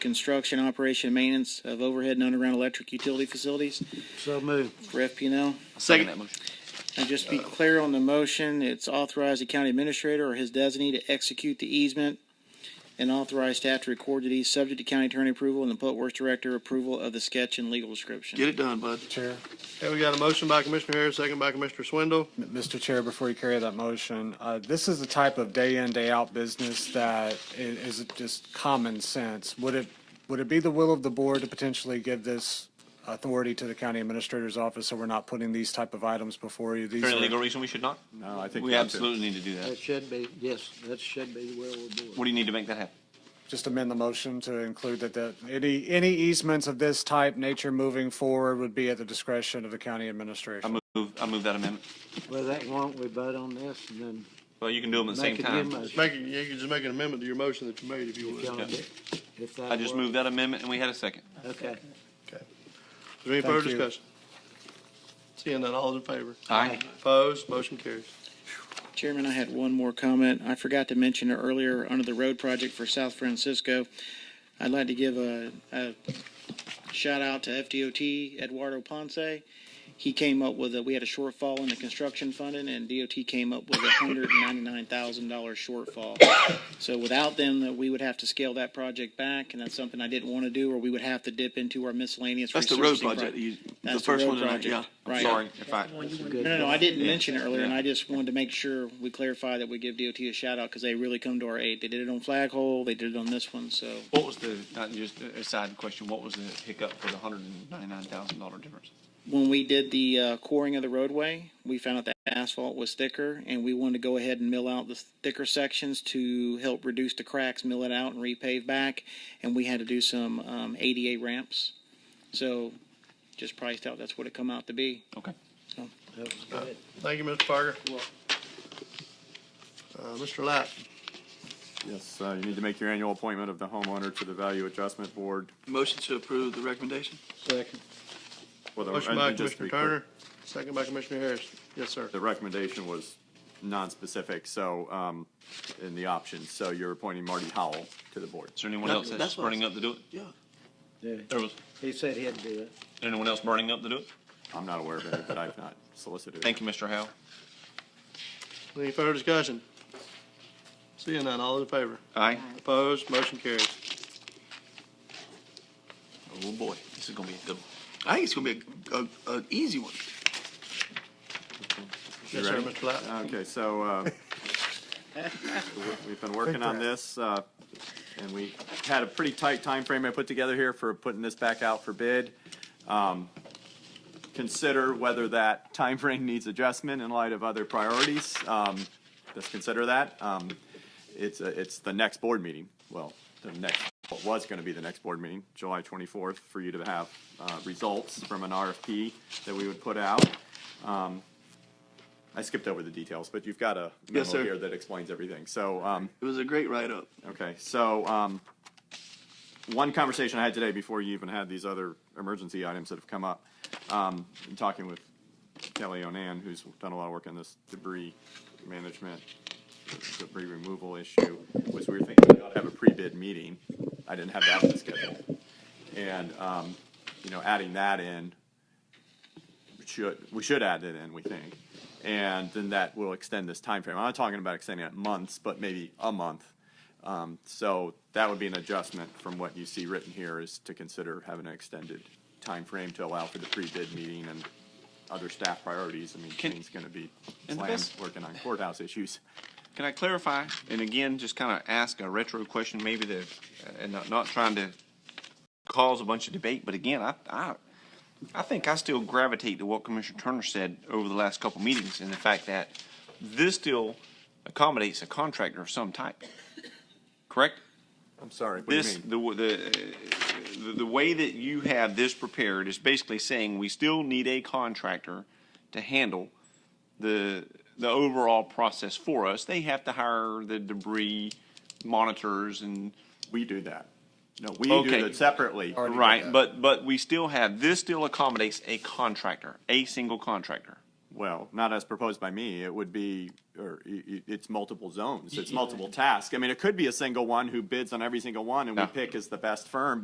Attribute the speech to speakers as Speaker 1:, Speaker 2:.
Speaker 1: construction, operation, and maintenance of overhead and underground electric utility facilities
Speaker 2: So moved.
Speaker 1: for FPL.
Speaker 3: Second that motion.
Speaker 1: And just be clear on the motion, it's authorize the county administrator or his designee to execute the easement and authorize staff to record the deed, subject to county attorney approval and the public works director approval of the sketch and legal description.
Speaker 3: Get it done, bud.
Speaker 4: Chair,
Speaker 2: Okay, we got a motion by Commissioner Harris, second by Commissioner Swindle.
Speaker 4: M- Mr. Chair, before you carry that motion, uh, this is the type of day in, day out business that i- is, just common sense. Would it, would it be the will of the board to potentially give this authority to the county administrator's office so we're not putting these type of items before you? These
Speaker 5: Is there
Speaker 4: are-
Speaker 5: any legal reason we should not?
Speaker 6: No, I think.
Speaker 5: We
Speaker 6: that's it.
Speaker 5: absolutely need to do that.
Speaker 2: That should be, yes, that should be the will of the board.
Speaker 5: What do you need to make that happen?
Speaker 4: Just amend the motion to include that, that any, any easements of this type, nature moving forward would be at the discretion of the county
Speaker 5: I
Speaker 4: administration.
Speaker 5: move, I move that amendment.
Speaker 7: Well, that, why don't we vote on this and then
Speaker 5: Well, you can do them at the same
Speaker 7: make a new
Speaker 5: time.
Speaker 7: motion?
Speaker 2: Make, it- you can just make an amendment to your motion that you made if you
Speaker 7: John,
Speaker 2: want. Is
Speaker 7: if that
Speaker 5: I just
Speaker 7: works.
Speaker 5: moved that amendment and we had a second.
Speaker 7: Okay.
Speaker 2: there any further
Speaker 4: Thank you.
Speaker 2: discussion? Seeing none, all in favor?
Speaker 5: Aye.
Speaker 2: Opposed, motion carries.
Speaker 1: Chairman, I had one more comment. I forgot to mention it earlier under the road project for South Francisco. I'd like to give a, a shout out to FDOT Eduardo Ponce. He came up with a, we had a shortfall in the construction funding and DOT came up with a hundred and ninety-nine thousand dollar shortfall. So without them, that we would have to scale that project back and that's something I didn't want to do, or we would have to dip into our miscellaneous.
Speaker 3: That's the road
Speaker 1: resurfacing
Speaker 3: project,
Speaker 1: pro-
Speaker 3: you- the
Speaker 1: That's
Speaker 3: first
Speaker 1: road
Speaker 3: one tonight,
Speaker 1: project.
Speaker 3: yeah.
Speaker 1: Right.
Speaker 5: Sorry, if I,
Speaker 1: No, no, no, I didn't mention it earlier, and
Speaker 5: Yeah.
Speaker 1: I just wanted to make sure we clarify that we give DOT a shout out because they really come to our aid. They did it on Flaghole, they did it on this one, so
Speaker 5: what was the, not just a side question, what was the hiccup for the hundred and ninety-nine thousand dollar difference?
Speaker 1: when we did the uh, coring of the roadway, we found out that asphalt was thicker, and we wanted to go ahead and mill out the thicker sections to help reduce the cracks, mill it out, and repave back. And we had to do some um, ADA ramps, so just priced out. That's what it come out to be.
Speaker 5: Okay.
Speaker 7: That was good.
Speaker 2: Thank you, Mr. Parker. Uh, Mr. Light,
Speaker 6: Yes, uh, you need to make your annual appointment of the homeowner to the value adjustment board.
Speaker 3: Motion to approve the recommendation.
Speaker 7: Second.
Speaker 6: Well, the-
Speaker 2: motion
Speaker 6: and
Speaker 2: by
Speaker 6: just to
Speaker 2: Commissioner
Speaker 6: be clear,
Speaker 2: Turner, second by Commissioner Harris. Yes, sir.
Speaker 6: The recommendation was non-specific, so, um, in the options, so you're appointing Marty Howell to the board.
Speaker 5: Is there anyone
Speaker 3: That-
Speaker 5: else that's
Speaker 3: that's what I
Speaker 5: burning up to do it?
Speaker 3: Yeah.
Speaker 7: Yeah.
Speaker 5: There was,
Speaker 7: He said he'd do it.
Speaker 5: anyone else burning up to do it?
Speaker 6: I'm not aware of it, but I've not solicited.
Speaker 5: Thank you, Mr. Howe.
Speaker 2: Any further discussion? Seeing none, all in favor?
Speaker 5: Aye.
Speaker 2: Opposed, motion carries.
Speaker 3: Oh, boy, this is gonna be a good, one. I think it's gonna be a, a, an easy one.
Speaker 2: Yes, sir,
Speaker 6: ready?
Speaker 2: Mr. Light.
Speaker 6: Okay, so, uh, we've been working on this, uh, and we had a pretty tight time frame I put together here for putting this back out for bid. Um, Consider whether that time frame needs adjustment in light of other priorities. Um, Let's consider that. Um, It's, a- it's the next board meeting, well, the next, what was going to be the next board meeting, July 24th, for you to have uh, results from an RFP that we would put out. Um, I skipped over the details, but you've got a
Speaker 3: Yes,
Speaker 6: memo
Speaker 3: sir.
Speaker 6: here that explains everything. So, um,
Speaker 3: It was a great write-up.
Speaker 6: Okay, so, um, one conversation I had today before you even had these other emergency items that have come up, um, in talking with Kelly Onan, who's done a lot of work on this debris management, debris removal issue, was we were thinking we ought to have a pre-bid meeting. I didn't have that on the schedule. And, um, you know, adding that in, we should, we should add it in, we think. And then that will extend this time frame. I'm not talking about extending it months, but maybe a month. Um, so that would be an adjustment from what you see written here is to consider having an extended time frame to allow for the pre-bid meeting and other staff priorities. I mean,
Speaker 5: Can-
Speaker 6: Kane's gonna be
Speaker 5: And the
Speaker 6: slammed
Speaker 5: best-
Speaker 6: working on courthouse issues.
Speaker 5: Can I clarify, and again, just kind of ask a retro question, maybe the, and not, not trying to cause a bunch of debate, but again, I, I, I think I still gravitate to what Commissioner Turner said over the last couple meetings, and the fact that this still accommodates a contractor of some type, correct?
Speaker 6: I'm sorry, what do you
Speaker 5: This,
Speaker 6: mean?
Speaker 5: the, w- the, uh, the, the way that you have this prepared is basically saying we still need a contractor to handle the, the overall process for us. They have to hire the debris monitors and,
Speaker 6: We do that. No, we
Speaker 5: Okay.
Speaker 6: do that separately.
Speaker 5: right, but, but we still have, this still accommodates a contractor, a single contractor,
Speaker 6: well, not as proposed by me, it would be, or i- i- it's multiple zones, it's multiple tasks. I mean, it could be a single one who bids on every single one and we
Speaker 5: Yeah.
Speaker 6: pick as the best firm,